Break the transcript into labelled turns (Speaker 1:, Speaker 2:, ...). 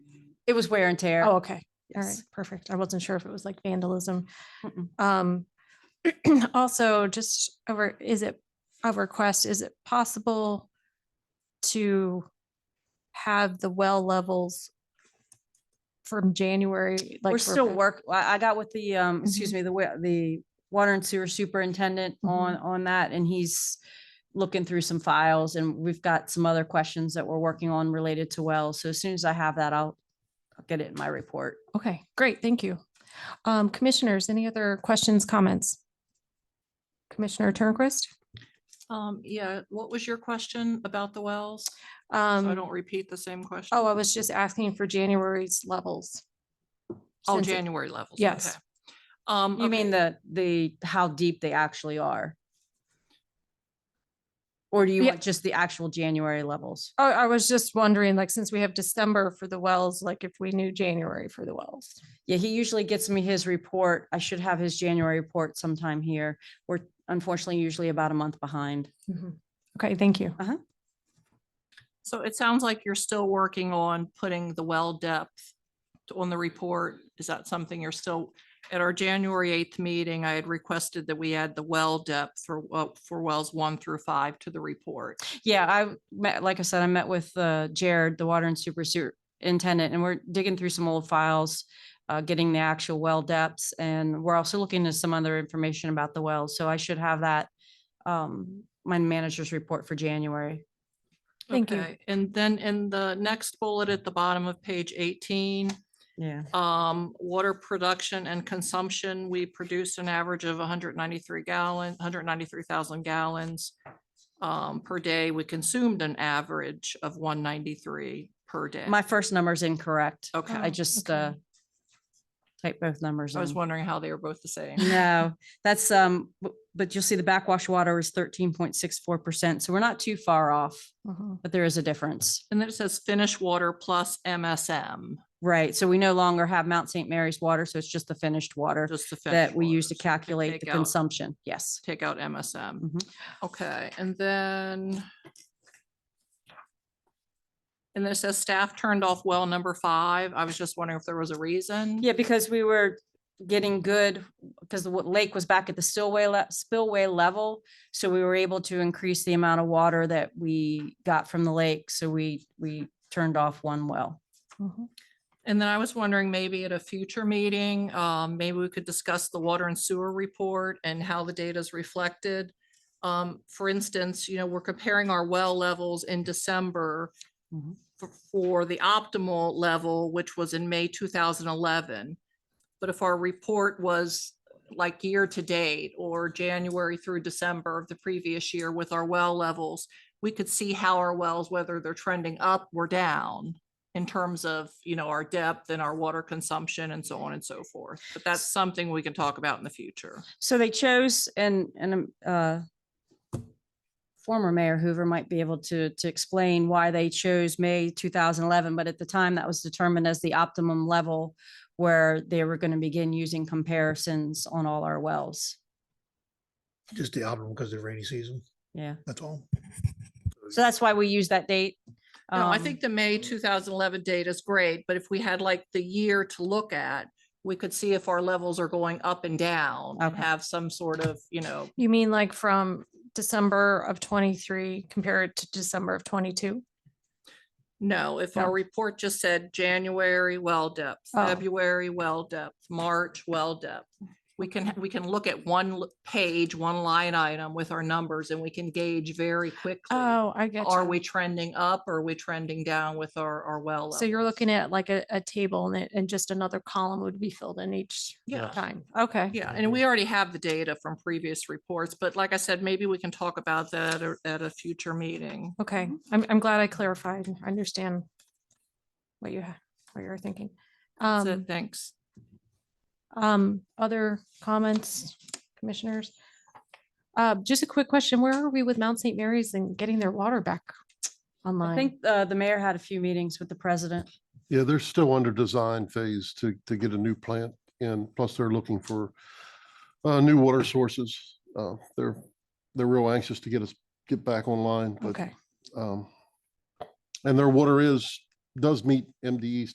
Speaker 1: It was wear and tear.
Speaker 2: Oh, okay. All right,
Speaker 1: Yes.
Speaker 2: perfect. I wasn't sure if it was like vandalism.
Speaker 1: Mm-mm.
Speaker 2: Um, also just over, is it a request? Is it possible to have the well levels from January? like
Speaker 1: We're
Speaker 2: for Mm-hmm.
Speaker 1: still
Speaker 2: pa-
Speaker 1: work, I, I got with the, um, excuse me, the, wa- the water and sewer superintendent
Speaker 2: Mhm.
Speaker 1: on, on that and he's looking through some files and we've got some other questions that we're working on related to wells. So as soon as I have that, I'll I'll get it in my report.
Speaker 2: Okay, great. Thank you. Um, commissioners, any other questions, comments? Commissioner Turnquist?
Speaker 3: Um, yeah, what was your question about the wells? So I
Speaker 2: Um,
Speaker 3: don't repeat the same question.
Speaker 2: oh, I was just asking for January's levels.
Speaker 3: Oh,
Speaker 2: since it-
Speaker 3: January levels.
Speaker 2: Yes.
Speaker 3: okay. Um.
Speaker 1: You mean
Speaker 3: okay,
Speaker 1: the, the, how deep they actually are? Or do you
Speaker 2: Yeah.
Speaker 1: want just the actual January levels?
Speaker 2: Oh, I was just wondering, like, since we have December for the wells, like if we knew January for the wells.
Speaker 1: Yeah, he usually gets me his report. I should have his January report sometime here. We're unfortunately usually about a month behind.
Speaker 2: Mm-hmm. Okay, thank you.
Speaker 3: So it sounds like you're still working on putting the well depth t- on the report. Is that something you're still, at our January eighth meeting, I had requested that we add the well depth for, well- for wells one through five to the report.
Speaker 1: Yeah, I met, like I said, I met with uh, Jared, the water and super superintendent, and we're digging through some old files, uh, getting the actual well depths, and we're also looking at some other information about the wells. So I should have that, um, my manager's report for January.
Speaker 2: Thank you.
Speaker 3: Okay, And then in the next bullet at the bottom of page eighteen,
Speaker 1: Yeah.
Speaker 3: Um, water production and consumption, we produced an average of hundred ninety-three gallon, hundred ninety-three thousand gallons. Um, per day, we consumed an average of one ninety-three per day.
Speaker 1: My first number's incorrect.
Speaker 3: Oh, Okay.
Speaker 1: I just,
Speaker 2: okay.
Speaker 1: uh, typed both numbers
Speaker 3: I was
Speaker 1: in.
Speaker 3: wondering how they were both the same.
Speaker 1: No, that's, um, bu- but you'll see the backwash water is thirteen point six four percent, so we're not too far off,
Speaker 2: Mhm.
Speaker 1: but there is a difference.
Speaker 3: And then it says finished water plus MSM,
Speaker 1: Right, so we no longer have Mount St. Mary's water, so it's just the finished water
Speaker 3: just the.
Speaker 1: that
Speaker 3: finished
Speaker 1: we use
Speaker 3: waters.
Speaker 1: to
Speaker 3: They
Speaker 1: calculate
Speaker 3: take
Speaker 1: the
Speaker 3: out-
Speaker 1: consumption, yes.
Speaker 3: Take out MSM.
Speaker 1: Mhm.
Speaker 3: Okay, and then. And then it says staff turned off well number five. I was just wondering if there was a reason.
Speaker 1: Yeah, because we were getting good, because the wa- lake was back at the stillway, le- spillway level. So we were able to increase the amount of water that we got from the lake, so we, we turned off one well.
Speaker 2: Mhm.
Speaker 3: And then I was wondering, maybe at a future meeting, um, maybe we could discuss the water and sewer report and how the data is reflected. Um, for instance, you know, we're comparing our well levels in December
Speaker 1: Mhm.
Speaker 3: f- for the optimal level, which was in May two thousand eleven. But if our report was like year to date or January through December of the previous year with our well levels, we could see how our wells, whether they're trending up or down in terms of, you know, our depth and our water consumption and so on and so forth. But that's something we can talk about in the future.
Speaker 1: So they chose and, and, um, uh, former mayor Hoover might be able to, to explain why they chose May 2011, but at the time that was determined as the optimum level where they were going to begin using comparisons on all our wells.
Speaker 4: Just the album because of the rainy season,
Speaker 1: Yeah.
Speaker 4: that's all.
Speaker 1: So that's why we use that date.
Speaker 3: No, I
Speaker 1: Um,
Speaker 3: think the May two thousand eleven data is great, but if we had like the year to look at, we could see if our levels are going up and down and
Speaker 1: Okay.
Speaker 3: have some sort of, you know,
Speaker 2: You mean like from December of twenty-three compared to December of twenty-two?
Speaker 3: No, if
Speaker 2: No.
Speaker 3: our report just said January well depth,
Speaker 2: Oh.
Speaker 3: February well depth, March well depth. We can, we can look at one l- page, one line item with our numbers and we can gauge very quickly.
Speaker 2: Oh, I get
Speaker 3: Are we trending up or are we trending down with our, our well?
Speaker 2: So you're
Speaker 3: levels?
Speaker 2: looking at like a, a table and it, and just another column would be filled in each
Speaker 3: Yeah.
Speaker 2: time. Okay.
Speaker 3: Yeah, and we already have the data from previous reports, but like I said, maybe we can talk about that or- at a future meeting.
Speaker 2: Okay, I'm, I'm glad I clarified. I understand what you, ha- what you're thinking.
Speaker 3: That's it,
Speaker 2: Um,
Speaker 3: Thanks.
Speaker 2: um, other comments, commissioners? Uh, just a quick question. Where are we with Mount St. Mary's and getting their water back
Speaker 1: I
Speaker 2: online?
Speaker 1: think, uh, the mayor had a few meetings with the president.
Speaker 5: Yeah, they're still under design phase to, to get a new plant and plus they're looking for uh, new water sources. Uh, they're, they're real anxious to get us, get back online, but
Speaker 2: Okay,
Speaker 5: um, and their water is, does meet MDE